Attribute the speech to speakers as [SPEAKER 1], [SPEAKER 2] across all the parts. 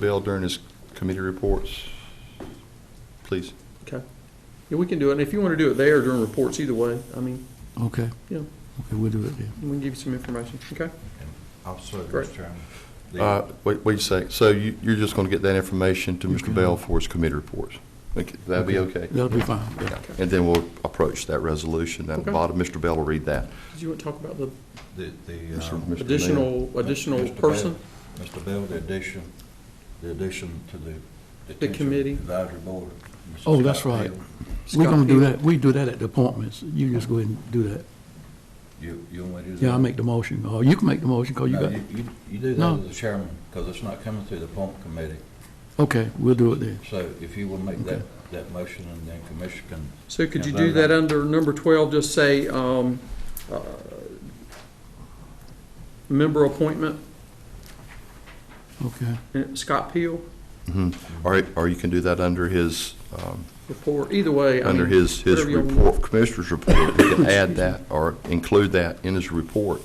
[SPEAKER 1] Bill during his committee reports, please.
[SPEAKER 2] Okay. Yeah, we can do it. And if you want to do it there or during reports, either way, I mean,
[SPEAKER 3] Okay,
[SPEAKER 2] you know,
[SPEAKER 3] okay, we'll do it then.
[SPEAKER 2] we can give you some information, okay?
[SPEAKER 4] Also,
[SPEAKER 2] Great.
[SPEAKER 4] Mr. Chairman. the-
[SPEAKER 1] Uh, Wait, wait a sec. So you, you're just going to get that information to
[SPEAKER 3] Okay.
[SPEAKER 1] Mr. Bell for his committee reports? Okay, That'd be okay?
[SPEAKER 3] That'll be fine. yeah.
[SPEAKER 1] And then we'll approach that resolution. At the
[SPEAKER 2] Okay.
[SPEAKER 1] bottom, Mr. Bell will read that.
[SPEAKER 2] Did you want to talk about the
[SPEAKER 4] The, the.
[SPEAKER 1] Mr.
[SPEAKER 4] um,
[SPEAKER 1] Mayor.
[SPEAKER 2] additional, additional
[SPEAKER 4] Mr. Bell-
[SPEAKER 2] person?
[SPEAKER 4] Mr. Bell, the addition, the addition to the. detention
[SPEAKER 2] committee.
[SPEAKER 4] Advisory board. Mr.
[SPEAKER 3] Oh, that's
[SPEAKER 4] Scott
[SPEAKER 3] right.
[SPEAKER 4] Hill.
[SPEAKER 3] We're
[SPEAKER 2] Scott
[SPEAKER 3] gonna do
[SPEAKER 2] Hill.
[SPEAKER 3] that, we do that at the appointments, you just go ahead and do that.
[SPEAKER 4] You, you want me to do that?
[SPEAKER 3] Yeah, I make the motion, or you can make the motion, because you
[SPEAKER 4] No,
[SPEAKER 3] got,
[SPEAKER 4] Uh, you, you- you do
[SPEAKER 3] No.
[SPEAKER 4] that as the chairman, because it's not coming through the appointment committee.
[SPEAKER 3] okay, we'll do it then.
[SPEAKER 4] So if you will make that,
[SPEAKER 3] Okay.
[SPEAKER 4] that motion and then commission can.
[SPEAKER 2] So could you
[SPEAKER 4] Yeah,
[SPEAKER 2] do
[SPEAKER 4] that-
[SPEAKER 2] that under number 12, just say, um, uh, member appointment,
[SPEAKER 3] Okay,
[SPEAKER 2] and Scott Peel,
[SPEAKER 1] Mhm. Or, or you can do that under his, um,
[SPEAKER 2] report, either way. I
[SPEAKER 1] under
[SPEAKER 2] mean,
[SPEAKER 1] his, his
[SPEAKER 2] whatever you want.
[SPEAKER 1] report, commissioner's report. You can add that or include that in his report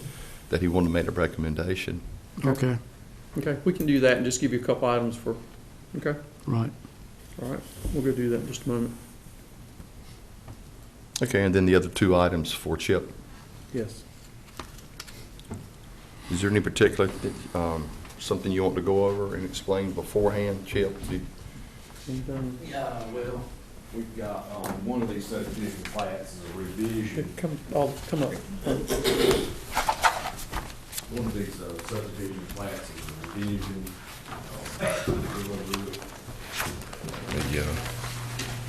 [SPEAKER 1] that he wanted to make a recommendation.
[SPEAKER 3] okay,
[SPEAKER 2] Okay, we can do that and just give you a couple items for, okay?
[SPEAKER 3] right.
[SPEAKER 2] All right, we'll go do that in just a moment.
[SPEAKER 1] Okay, and then the other two items for Chip.
[SPEAKER 2] Yes.
[SPEAKER 1] Is there any particular, um, something you want to go over and explain beforehand, Chip? Do you-
[SPEAKER 2] Anything?
[SPEAKER 5] Yeah, well, we've got, um, one of these subdivision plats is a revision,
[SPEAKER 2] Come, I'll come up.
[SPEAKER 5] one of these uh, subdivision plats is a uh, revision. Uh, we're gonna do it.
[SPEAKER 1] Yeah.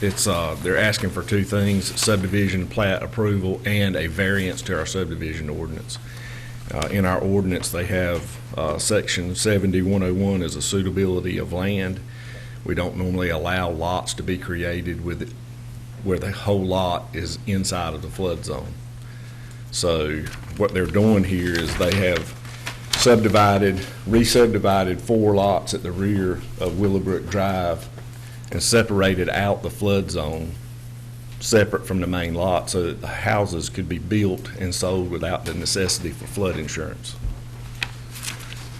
[SPEAKER 6] It's, uh, they're asking for two things, subdivision plat approval and a variance to our subdivision ordinance. Uh, in our ordinance, they have, uh, section seventy-one oh one is a suitability of land. We don't normally allow lots to be created with, where the whole lot is inside of the flood zone. So what they're doing here is they have subdivided, re-subdivided four lots at the rear of Willowbrook Drive and separated out the flood zone, separate from the main lot, so that the houses could be built and sold without the necessity for flood insurance.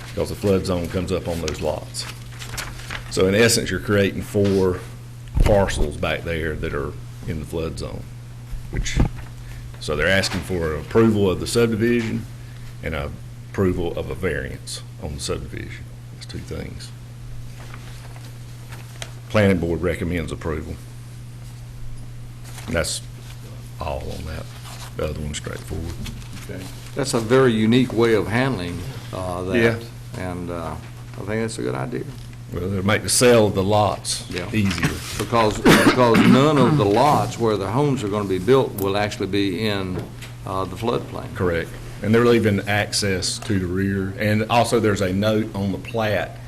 [SPEAKER 6] Because the flood zone comes up on those lots. So in essence, you're creating four parcels back there that are in the flood zone, which, so they're asking for an approval of the subdivision and a approval of a variance on the subdivision. That's two things. Planning Board recommends approval. And That's all on that. The other one's straightforward.
[SPEAKER 7] That's a very unique way of handling uh, that.
[SPEAKER 6] Yeah.
[SPEAKER 7] And uh, I think that's a good idea,
[SPEAKER 6] Well, it'll make the sale of the lots
[SPEAKER 7] Yeah.
[SPEAKER 6] easier.
[SPEAKER 7] because, because none of the lots where the homes are going to be built will actually be in uh, the floodplain.
[SPEAKER 6] Correct. And they're leaving access to the rear. And also, there's a note on the plat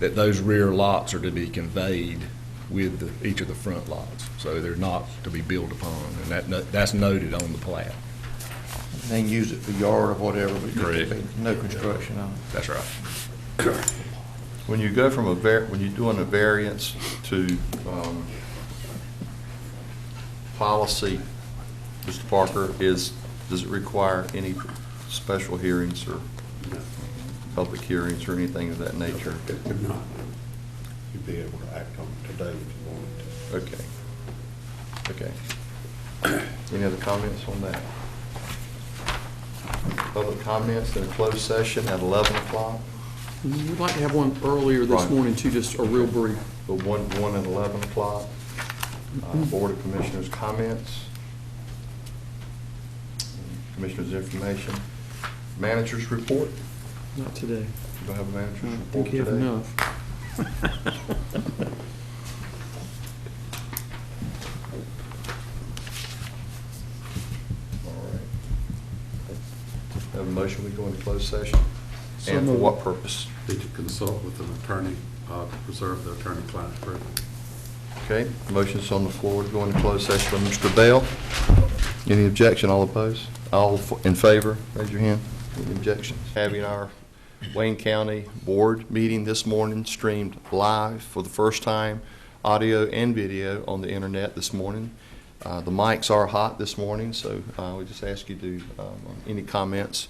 [SPEAKER 6] that those rear lots are to be conveyed with the- each of the front lots. So they're not to be built upon, and that, no- that's noted on the plat.
[SPEAKER 4] They can use it for yard or whatever, but
[SPEAKER 6] Correct.
[SPEAKER 4] no construction on it.
[SPEAKER 6] That's right.
[SPEAKER 1] When you go from a var, when you're doing a variance to, um, policy, Mr. Parker, is, does it require any special hearings or public hearings or anything of that nature?
[SPEAKER 4] You'd be able to act on it today if you wanted to.
[SPEAKER 1] Okay. Okay. Any other comments on that? Public comments in a closed session at 11 o'clock,
[SPEAKER 2] We'd like to have one earlier this
[SPEAKER 1] Right.
[SPEAKER 2] morning too, just a real brief.
[SPEAKER 1] the one, one at 11 o'clock. Uh, Board of Commissioners' comments. Commissioners' information. Managers' report.
[SPEAKER 2] Not today.
[SPEAKER 1] Do I have a
[SPEAKER 2] I
[SPEAKER 1] manager's report
[SPEAKER 2] think you
[SPEAKER 1] today?
[SPEAKER 2] have enough.
[SPEAKER 1] All right. Have a motion, we go into closed session? And for what purpose?
[SPEAKER 8] Need to consult with an attorney, uh, to preserve the attorney-client privilege.
[SPEAKER 1] Okay, motion's on the floor to go into closed session by Mr. Bell. Any objection, all opposed? All f- in favor, raise your hand. Any objections? Having our Wayne County Board meeting this morning streamed live for the first time, audio and video on the internet this morning. Uh, Uh, The mics are hot this morning, so uh, we just ask you to, um, any comments